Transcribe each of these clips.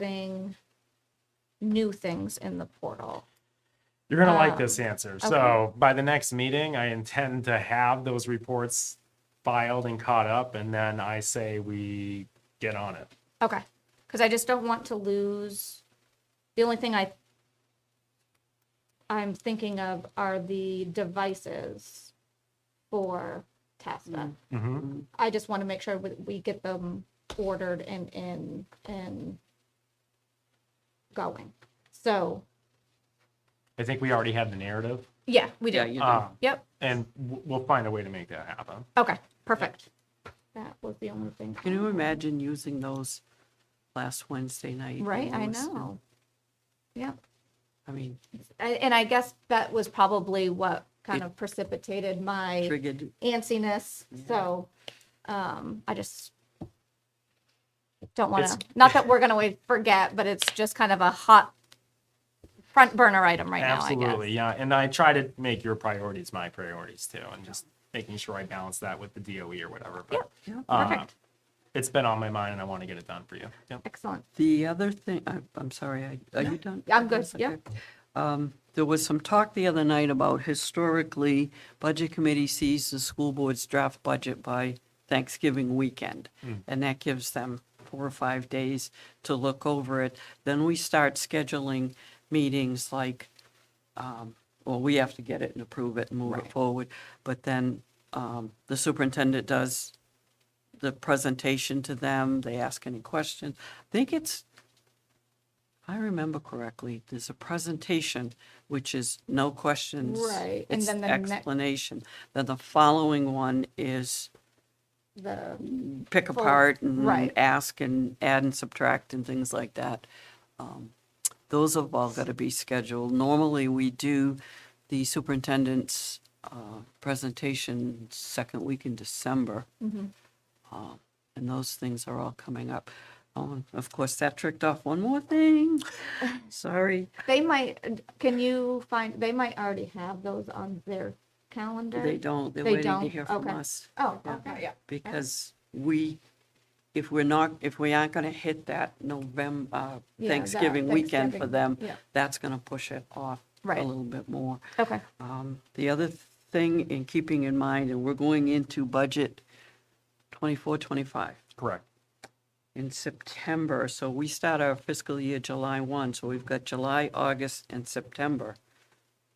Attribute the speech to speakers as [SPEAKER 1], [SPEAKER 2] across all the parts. [SPEAKER 1] getting new things in the portal.
[SPEAKER 2] You're gonna like
[SPEAKER 1] Um,
[SPEAKER 2] this answer. So by the next meeting, I intend to have those reports filed and caught up, and then I say we get on it.
[SPEAKER 1] Okay. Because I just don't want to lose. The only thing I I'm thinking of are the devices for TASTA.
[SPEAKER 2] Mhm.
[SPEAKER 1] I just want to make sure we, we get them ordered and in and going. So
[SPEAKER 2] I think we already have the narrative,
[SPEAKER 1] yeah, we do.
[SPEAKER 3] Yeah, you do.
[SPEAKER 2] um,
[SPEAKER 1] Yep.
[SPEAKER 2] and w- we'll find a way to make that happen.
[SPEAKER 1] Okay. Perfect. That was the only thing.
[SPEAKER 3] Can you imagine using those last Wednesday night?
[SPEAKER 1] Right. I
[SPEAKER 3] and those-
[SPEAKER 1] know. Yep.
[SPEAKER 3] I mean,
[SPEAKER 1] I- And I guess that was probably what kind of precipitated my
[SPEAKER 3] triggered,
[SPEAKER 1] antsiness. So um, I just don't want
[SPEAKER 2] It's-
[SPEAKER 1] to, not that we're going to forget, but it's just kind of a hot front burner item right now, I guess.
[SPEAKER 2] Absolutely, yeah. And I try to make your priorities my priorities too, and just making sure I balance that with the DOE or whatever. But
[SPEAKER 3] yeah. Uh-huh.
[SPEAKER 2] uh,
[SPEAKER 1] Perfect.
[SPEAKER 2] it's been on my mind, and I want to get it done for you. Yep.
[SPEAKER 1] Excellent.
[SPEAKER 3] The other thing, I- I'm sorry, I- are you done?
[SPEAKER 1] I'm good,
[SPEAKER 3] Yes,
[SPEAKER 1] yeah.
[SPEAKER 3] okay. Um, There was some talk the other night about historically, Budget Committee sees the school board's draft budget by Thanksgiving weekend. And that gives them four or five days to look over it. Then we start scheduling meetings like well, we have to get it and approve it and move it forward. But then um, the superintendent does the presentation to them, they ask any questions. I think it's, if I remember correctly, there's a presentation, which is no questions.
[SPEAKER 1] Right, and
[SPEAKER 3] it's
[SPEAKER 1] then the next-
[SPEAKER 3] Explanation. Then the following one is
[SPEAKER 1] The,
[SPEAKER 3] pick
[SPEAKER 1] Full-
[SPEAKER 3] apart and
[SPEAKER 1] right.
[SPEAKER 3] ask and add and subtract and things like that. Um, Those have all got to be scheduled. Normally, we do the superintendent's uh, presentation second week in December.
[SPEAKER 1] Mm-hmm.
[SPEAKER 3] Uh, And those things are all coming up. Oh, and Of course, that tricked off one more thing. Sorry.
[SPEAKER 1] they might, can you find, they might already have those on their calendar.
[SPEAKER 3] They don't, they're
[SPEAKER 1] They
[SPEAKER 3] waiting to
[SPEAKER 1] don't?
[SPEAKER 3] hear from
[SPEAKER 1] Okay.
[SPEAKER 3] us.
[SPEAKER 1] Oh, okay, yeah.
[SPEAKER 3] Because we, if we're not, if we aren't going to hit that November, uh,
[SPEAKER 1] Yeah, that
[SPEAKER 3] Thanksgiving weekend for
[SPEAKER 1] Thanksgiving,
[SPEAKER 3] them,
[SPEAKER 1] yeah.
[SPEAKER 3] that's going to push it off a
[SPEAKER 1] Right.
[SPEAKER 3] little bit more.
[SPEAKER 1] Okay.
[SPEAKER 3] Um, The other thing in keeping in mind, and we're going into budget 24, 25
[SPEAKER 2] Correct.
[SPEAKER 3] in September. So we start our fiscal year July 1, so we've got July, August, and September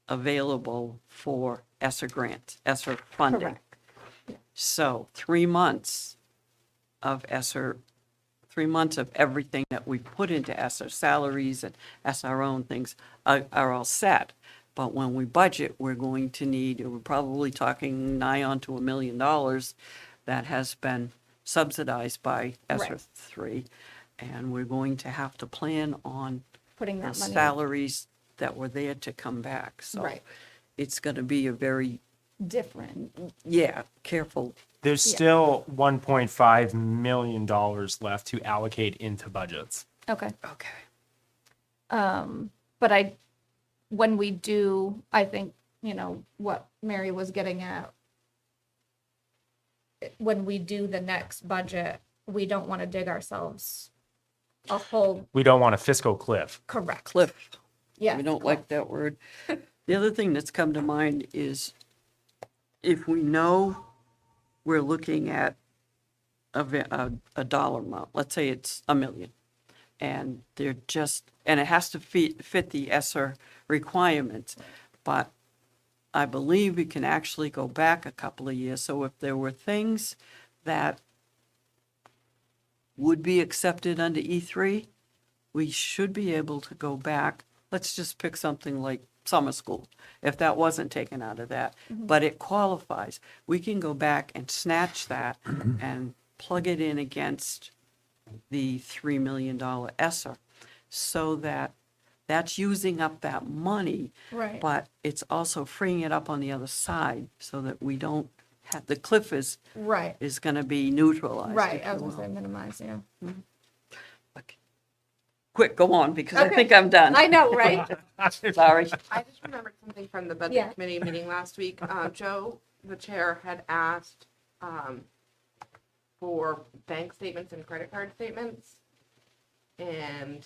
[SPEAKER 3] available for ESSER grants, ESSER funding.
[SPEAKER 1] Correct.
[SPEAKER 3] So three months of ESSER, three months of everything that we put into ESSER salaries and SRO and things are, are all set. But when we budget, we're going to need, we're probably talking nigh on to a million dollars that has been subsidized by ESSER
[SPEAKER 1] Right.
[SPEAKER 3] three. And we're going to have to plan on
[SPEAKER 1] Putting
[SPEAKER 3] the
[SPEAKER 1] that money
[SPEAKER 3] salaries that were there to come back. So
[SPEAKER 1] Right.
[SPEAKER 3] it's going to be a very,
[SPEAKER 1] different. Mm,
[SPEAKER 3] yeah, careful
[SPEAKER 2] There's still 1.5 million dollars left to allocate into budgets.
[SPEAKER 1] Okay.
[SPEAKER 3] Okay.
[SPEAKER 1] Um, but I, when we do, I think, you know, what Mary was getting at. When we do the next budget, we don't want to dig ourselves a hole.
[SPEAKER 2] We don't want a fiscal cliff.
[SPEAKER 1] Correct.
[SPEAKER 3] Cliff,
[SPEAKER 1] Yeah.
[SPEAKER 3] we don't like that word. The other thing that's come to mind is if we know we're looking at a, va- a, a dollar amount, let's say it's a million, and they're just, and it has to fit, fit the ESSER requirements. But I believe we can actually go back a couple of years. So if there were things that would be accepted under E3, we should be able to go back. Let's just pick something like summer school, if that wasn't taken out of that, but it qualifies. We can go back and snatch that and plug it in against the $3 million E ESSER so that that's using up that money.
[SPEAKER 1] Right.
[SPEAKER 3] But it's also freeing it up on the other side so that we don't have, the cliff is,
[SPEAKER 1] Right,
[SPEAKER 3] is going to be neutralized.
[SPEAKER 1] right.
[SPEAKER 3] if
[SPEAKER 1] I
[SPEAKER 3] you
[SPEAKER 1] was gonna
[SPEAKER 3] will.
[SPEAKER 1] say minimize, yeah.
[SPEAKER 3] Okay. Quick, go on, because I
[SPEAKER 1] Okay.
[SPEAKER 3] think I'm done.
[SPEAKER 1] I know, right?
[SPEAKER 3] Sorry.
[SPEAKER 4] I just remembered something from the
[SPEAKER 1] Yeah.
[SPEAKER 4] budget committee meeting last week. Uh, Joe, the chair, had asked, um, for bank statements and credit card statements. and